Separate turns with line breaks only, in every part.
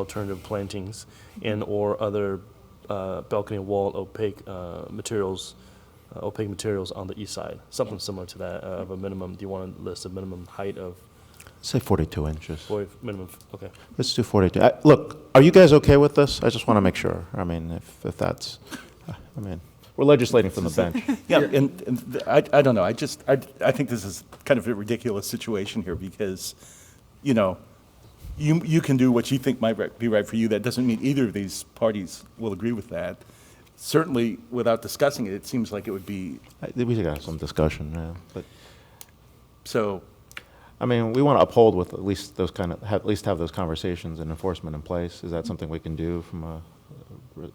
alternative plantings and/or other uh, balcony wall opaque uh, materials, uh, opaque materials on the east side, something similar to that, uh, of a minimum, do you want to list a minimum height of,
Say 42 inches.
or if- minimum, f- okay.
Let's do 42. I- Look, are you guys okay with this? I just want to make sure. I mean, if if that's, uh, I mean, we're legislating from the bench.
Yeah, and, and th- I, I don't know, I just, I, I think this is kind of a ridiculous situation here because, you know, you, you can do what you think might ri- be right for you, that doesn't mean either of these parties will agree with that. Certainly, without discussing it, it seems like it would be,
I- We should have some discussion, yeah. But,
so,
I mean, we want to uphold with at least those kind of, at least have those conversations and enforcement in place. Is that something we can do from a uh, re-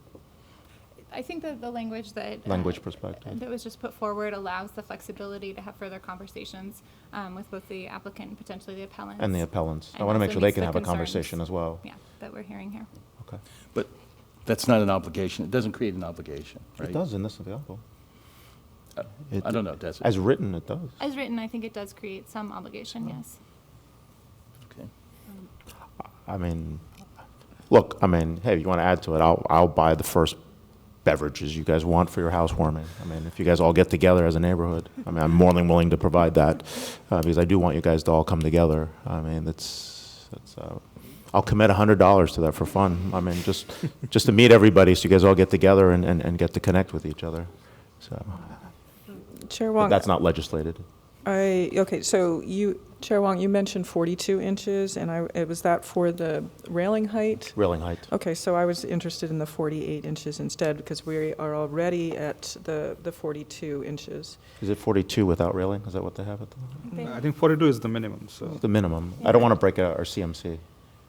I think that the language that. uh,
language perspective?
That was just put forward allows the flexibility to have further conversations um, with both the applicant and potentially the appellants.
And the appellants. I
And
want to make
also
sure they
meets
can
the
have a
concerns.
conversation as well.
Yeah, that we're hearing here.
Okay.
but that's not an obligation, it doesn't create an obligation, right? Uh,
It does in this example. It-
I don't know, does it?
As written, it does.
As written, I think it does create some obligation, yes.
Okay.
I mean, look, I mean, hey, you want to add to it? I'll, I'll buy the first beverages you guys want for your housewarming. I mean, if you guys all get together as a neighborhood, I mean, I'm more than willing to provide that uh, because I do want you guys to all come together. I mean, that's, that's, uh, I'll commit $100 to that for fun. I mean, just, just to meet everybody so you guys all get together and, and, and get to connect with each other. So,
Chair
but
Wong,
that's not legislated.
I, okay, so you, Chair Wong, you mentioned 42 inches, and I, it was that for the railing height?
Railing height.
Okay, so I was interested in the 48 inches instead, because we are already at the, the 42 inches.
Is it 42 without railing? Is that what they have at the,
They-
I think 42 is the minimum, so.
the minimum? I don't want to break out our CMC.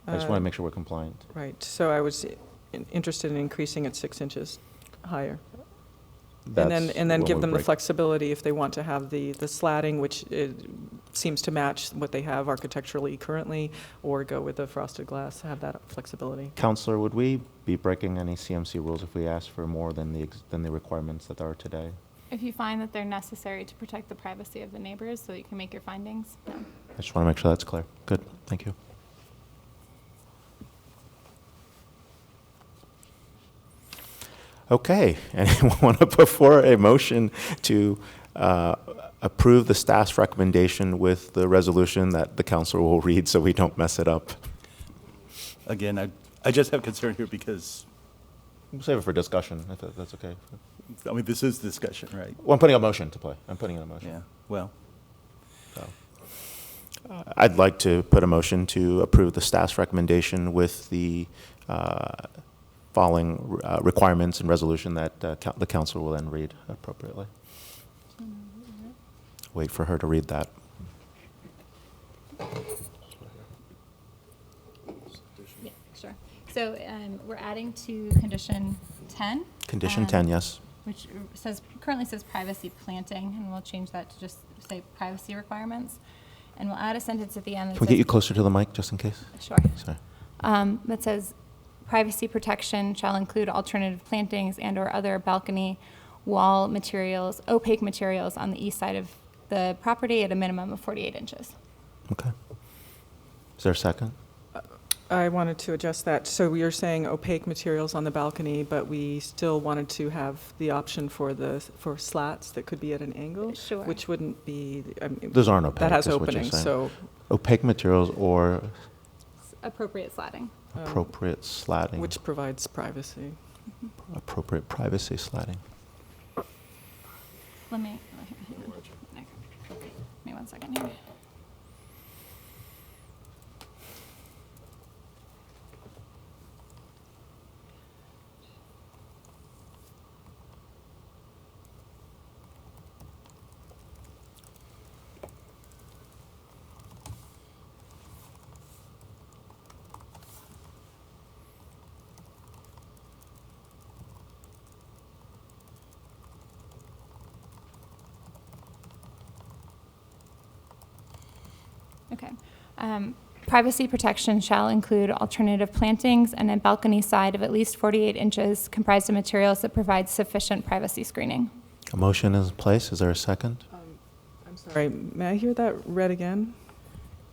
I
Uh,
just want to make sure we're compliant.
Right, so I was in- interested in increasing it six inches higher. And then,
That's
and then
when
give
we
them the
break-
flexibility if they want to have the, the slatting, which uh, seems to match what they have architecturally currently, or go with the frosted glass, have that flexibility.
Counselor, would we be breaking any CMC rules if we asked for more than the, ex- than the requirements that are today?
If you find that they're necessary to protect the privacy of the neighbors so that you can make your findings, no.
I just want to make sure that's clear. Good, thank you. Okay, anyone want to put forward a motion to uh, approve the staff's recommendation with the resolution that the counselor will read so we don't mess it up?
Again, I, I just have concern here because,
We'll save it for discussion, if that- that's okay.
I mean, this is discussion, right?
Well, I'm putting a motion to play. I'm putting in a motion.
Yeah, well,
I'd like to put a motion to approve the staff's recommendation with the uh, following uh, requirements and resolution that uh, coun- the council will then read appropriately. Wait for her to read that.
Yeah, sure. So um, we're adding to condition 10.
Condition
um,
10, yes?
which says, currently says privacy planting, and we'll change that to just say privacy requirements. And we'll add a sentence at the end that
Can
says.
we get you closer to the mic, just in case?
Sure.
Sorry.
Um, That says, privacy protection shall include alternative plantings and/or other balcony wall materials, opaque materials on the east side of the property at a minimum of 48 inches.
Okay. Is there a second?
I wanted to adjust that. So we are saying opaque materials on the balcony, but we still wanted to have the option for the, for slats that could be at an angle,
Sure.
which wouldn't be, I mean,
Those aren't
that
opaque,
has
is what you're
openings,
saying.
so.
Opaque materials or
Appropriate slatting.
um,
appropriate slatting,
Which provides privacy.
Mm-hmm.
appropriate privacy slatting.
Let me, okay. give me one second here. Okay. Um, Privacy protection shall include alternative plantings and a balcony side of at least 48 inches comprised of materials that provide sufficient privacy screening.
A motion is in place, is there a second?
I'm sorry, may I hear that read again?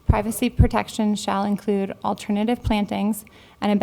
Privacy protection shall include alternative plantings and a